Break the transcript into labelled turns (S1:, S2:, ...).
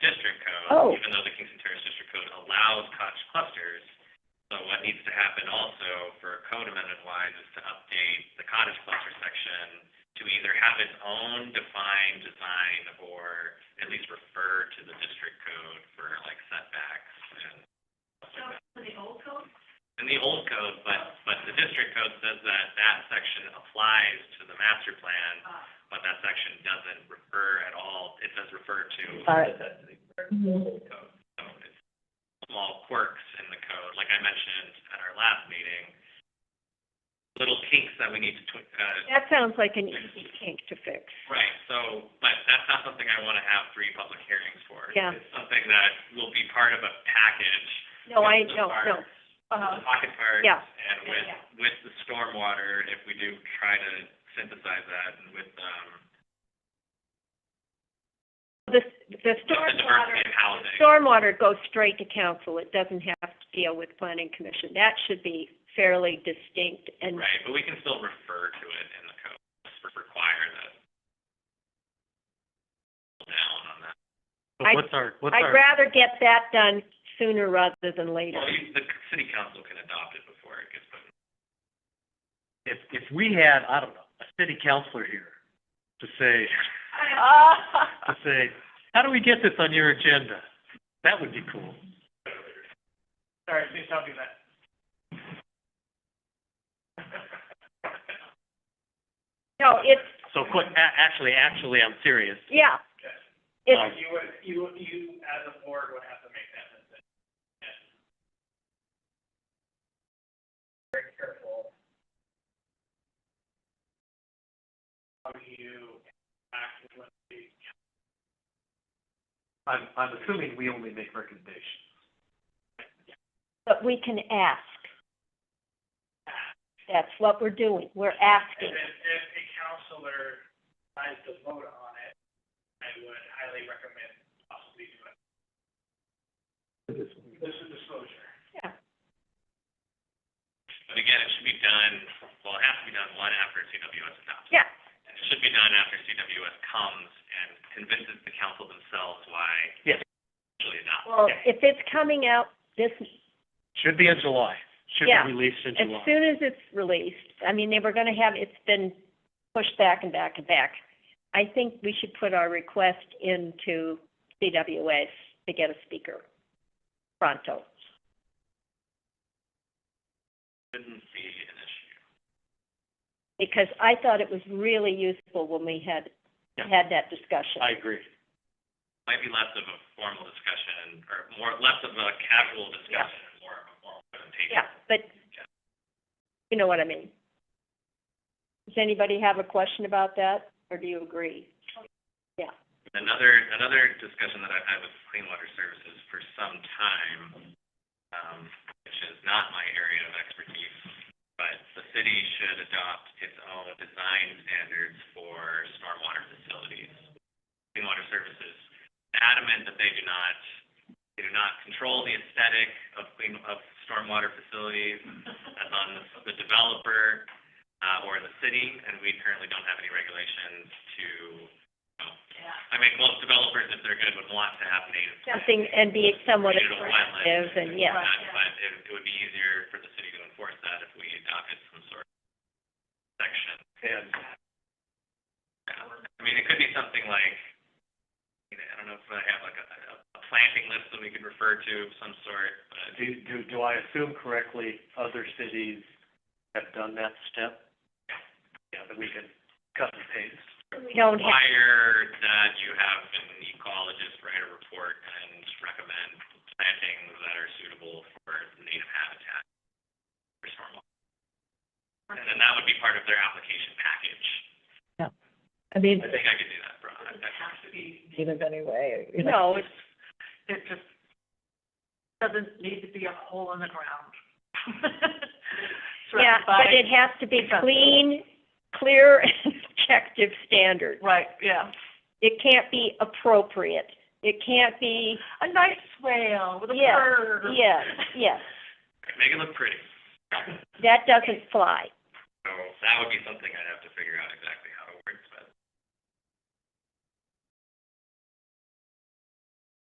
S1: Oh.
S2: Even though the Kingston Terrace District Code allows cottage clusters, so what needs to happen also for code amendment wise is to update the cottage cluster section to either have its own defined design or at least refer to the district code for like setbacks and stuff like that.
S3: the old code?
S2: in the old code, but, but the district code says that that section applies to the master plan,
S3: Ah.
S2: but that section doesn't refer at all, it does refer to
S1: All right.
S2: the old code. So it's small quirks in the code, like I mentioned at our last meeting, little kinks that we need to, twi- uh,
S1: That sounds like an easy kink to fix.
S2: Right, so, but that's not something I want to have three public hearings for.
S1: Yeah.
S2: It's something that will be part of a package.
S1: No, I,
S2: with the
S1: no, no. uh,
S2: parks, with The pocket parks.
S1: Yeah.
S2: And with,
S3: Yeah.
S2: with the stormwater, if we do try to synthesize that and with, um,
S1: The, the
S2: with the diversity
S1: stormwater,
S2: of housing.
S1: stormwater goes straight to council. It doesn't have to deal with planning commission. That should be fairly distinct and
S2: Right, but we can still refer to it in the code, just require that. Down on that.
S4: But
S1: I-
S4: what's our, what's
S1: I'd
S4: our,
S1: rather get that done sooner rather than later.
S2: Well, you- the city council can adopt it before it gets put in
S4: if, if we had, I don't know, a city councilor here to say, to say, how do we get this on your agenda? That would be cool.
S5: Sorry, please don't do that.
S1: No, it's,
S4: So quick, a- actually, actually, I'm serious.
S1: yeah. It's,
S4: Um,
S5: You would, you, you as a board would have to make that decision. Yes. Very careful. How do you act with the.
S4: I'm, I'm assuming we only make recommendations.
S1: but we can ask. That's what we're doing. We're asking.
S5: And if, if a counselor decides to vote on it, I would highly recommend possibly doing. This is disclosure.
S2: But again, it should be done, well, it has to be done one after CWS adopts. it.
S1: Yeah.
S2: And it should be done after CWS comes and convinces the council themselves why.
S4: Yes.
S2: Actually adopt.
S1: Well, if it's coming out this,
S4: Should be in July. Should
S1: Yeah.
S4: be released in
S1: as
S4: July.
S1: soon as it's released, I mean, they were gonna have, it's been pushed back and back and back. I think we should put our request into CWS to get a speaker pronto.
S2: Shouldn't be an issue.
S1: Because I thought it was really useful when we had,
S4: Yeah.
S1: had that discussion.
S4: I agree.
S2: Might be less of a formal discussion or more, less of a casual discussion, and more of a formal presentation.
S1: Yeah, but, you know what I mean. Does anybody have a question about that, or do you agree?
S2: Another, another discussion that I've had with Clean Water Services for some time, um, which is not my area of expertise, but the city should adopt its own design standards for stormwater facilities. Clean Water Services adamant that they do not, they do not control the aesthetic of clean, of stormwater facilities. That's on the the developer, uh, or the city, and we currently don't have any regulations to, you know, I mean, most developers, if they're good, would want to have native.
S1: Something, and be somewhat
S2: Native wetlands
S1: attractive, and yeah.
S2: whatnot, But it, it would be easier for the city to enforce that if we adopted some sort of section.
S4: And
S2: I mean, it could be something like, you know, I don't know if I have like a, a a planting list that we could refer to of some sort, but
S4: do, do, do I assume correctly, other cities have done that step? Yeah, that we can cut and paste.
S1: We don't have,
S2: require that you have an ecologist write a report and recommend plantings that are suitable for native habitat for stormwater. And then that would be part of their application package.
S6: I mean,
S2: I think I could do that, Brian. I- I-
S6: native anyway, you
S1: no,
S6: know.
S1: it's-
S3: It just doesn't need to be a hole in the ground.
S1: yeah,
S3: Surrounded by-
S1: but it has to be clean, clear, and objective standard.
S3: Right, yeah.
S1: It can't be appropriate. It can't be,
S3: A nice swale with a
S1: Yeah,
S3: bird.
S1: yes, yes,
S2: Make it look pretty.
S1: that doesn't fly.
S2: So that would be something I'd have to figure out exactly